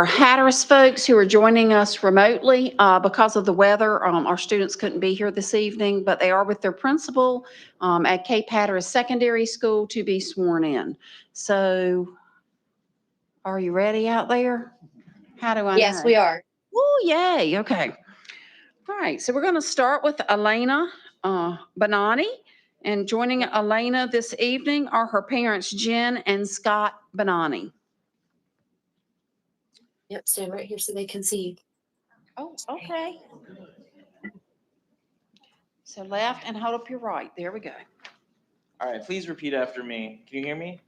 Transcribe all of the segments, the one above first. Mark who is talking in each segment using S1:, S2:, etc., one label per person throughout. S1: our Hatteras folks who are joining us remotely. uh, Because of the weather, um, our students couldn't be here this evening, but they are with their principal um, at Cape Hatteras Secondary School to be sworn in. So are you ready out there? How do I know?
S2: Yes, we are.
S1: Oh, yay, okay. All right, so we're going to start with Elena uh, Benani. And joining Elena this evening are her parents Jen and Scott Benani.
S3: Yep, stand right here so they can see.
S1: Oh, okay. So left and hold up your right, there we go.
S4: All right, please repeat after me. Can you hear me?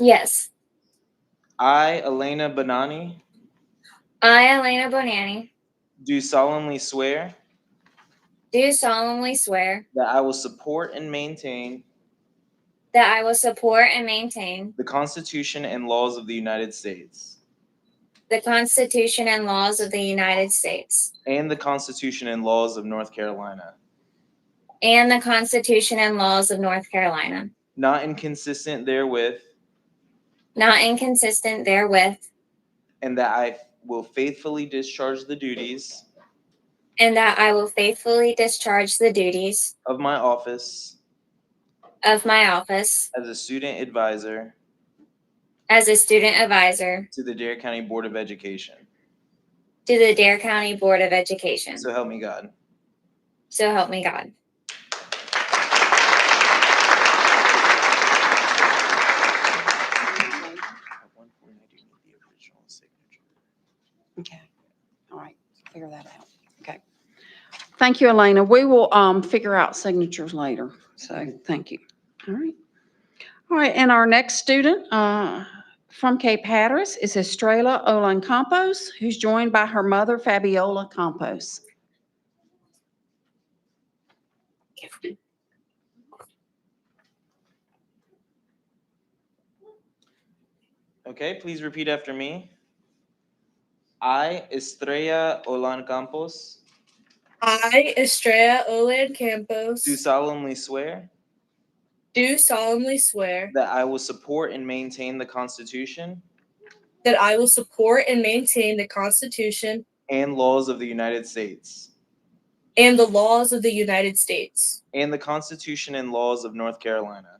S2: Yes.
S4: I, Elena Bonani,
S2: I, Elena Bonanni,
S4: do solemnly swear
S2: do solemnly swear
S4: that I will support and maintain
S2: that I will support and maintain
S4: the Constitution and laws of the United States
S2: the Constitution and laws of the United States
S4: and the Constitution and laws of North Carolina,
S2: and the Constitution and laws of North Carolina,
S4: not inconsistent therewith,
S2: not inconsistent therewith,
S4: and that I will faithfully discharge the duties
S2: and that I will faithfully discharge the duties
S4: of my office
S2: of my office
S4: as a student advisor
S2: as a student advisor
S4: to the Dare County Board of Education.
S2: to the Dare County Board of Education.
S4: So help me God.
S2: So help me God.
S4: At one point, I do need the original signature.
S1: Okay, all right, figure that out, okay. Thank you, Elena. We will um, figure out signatures later, so thank you. All right. All right, and our next student uh, from Cape Hatteras is Estrella Olan Campos, who's joined by her mother Fabiola Campos.
S4: Okay, please repeat after me. I, Estrella Olan Campos,
S5: I, Estrella Olan Campos,
S4: do solemnly swear
S5: do solemnly swear
S4: that I will support and maintain the Constitution
S5: that I will support and maintain the Constitution
S4: and laws of the United States
S5: and the laws of the United States,
S4: and the Constitution and laws of North Carolina,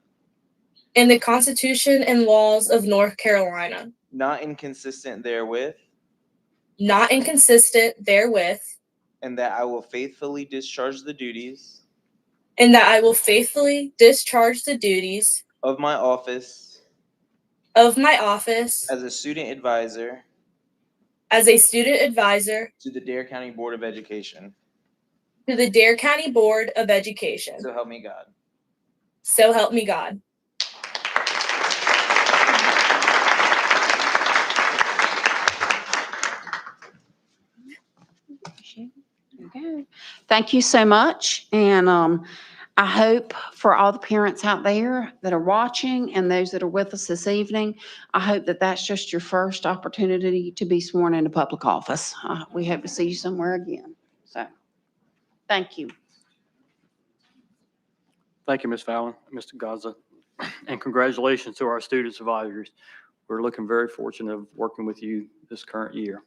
S5: and the Constitution and laws of North Carolina,
S4: not inconsistent therewith,
S5: not inconsistent therewith,
S4: and that I will faithfully discharge the duties
S5: and that I will faithfully discharge the duties
S4: of my office
S5: of my office
S4: as a student advisor
S5: as a student advisor
S4: to the Dare County Board of Education.
S5: to the Dare County Board of Education.
S4: So help me God.
S5: So help me God.
S1: There you go. Thank you so much. And um, I hope for all the parents out there that are watching and those that are with us this evening, I hope that that's just your first opportunity to be sworn into public office. Uh, We hope to see you somewhere again. So, thank you.
S6: Thank you, Ms. Fallon, Mr. Gaza, and congratulations to our students advisors. We're looking very fortunate of working with you this current year.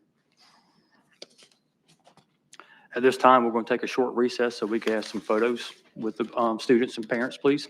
S6: At this time, we're going to take a short recess so we can have some photos with the um, students and parents, please.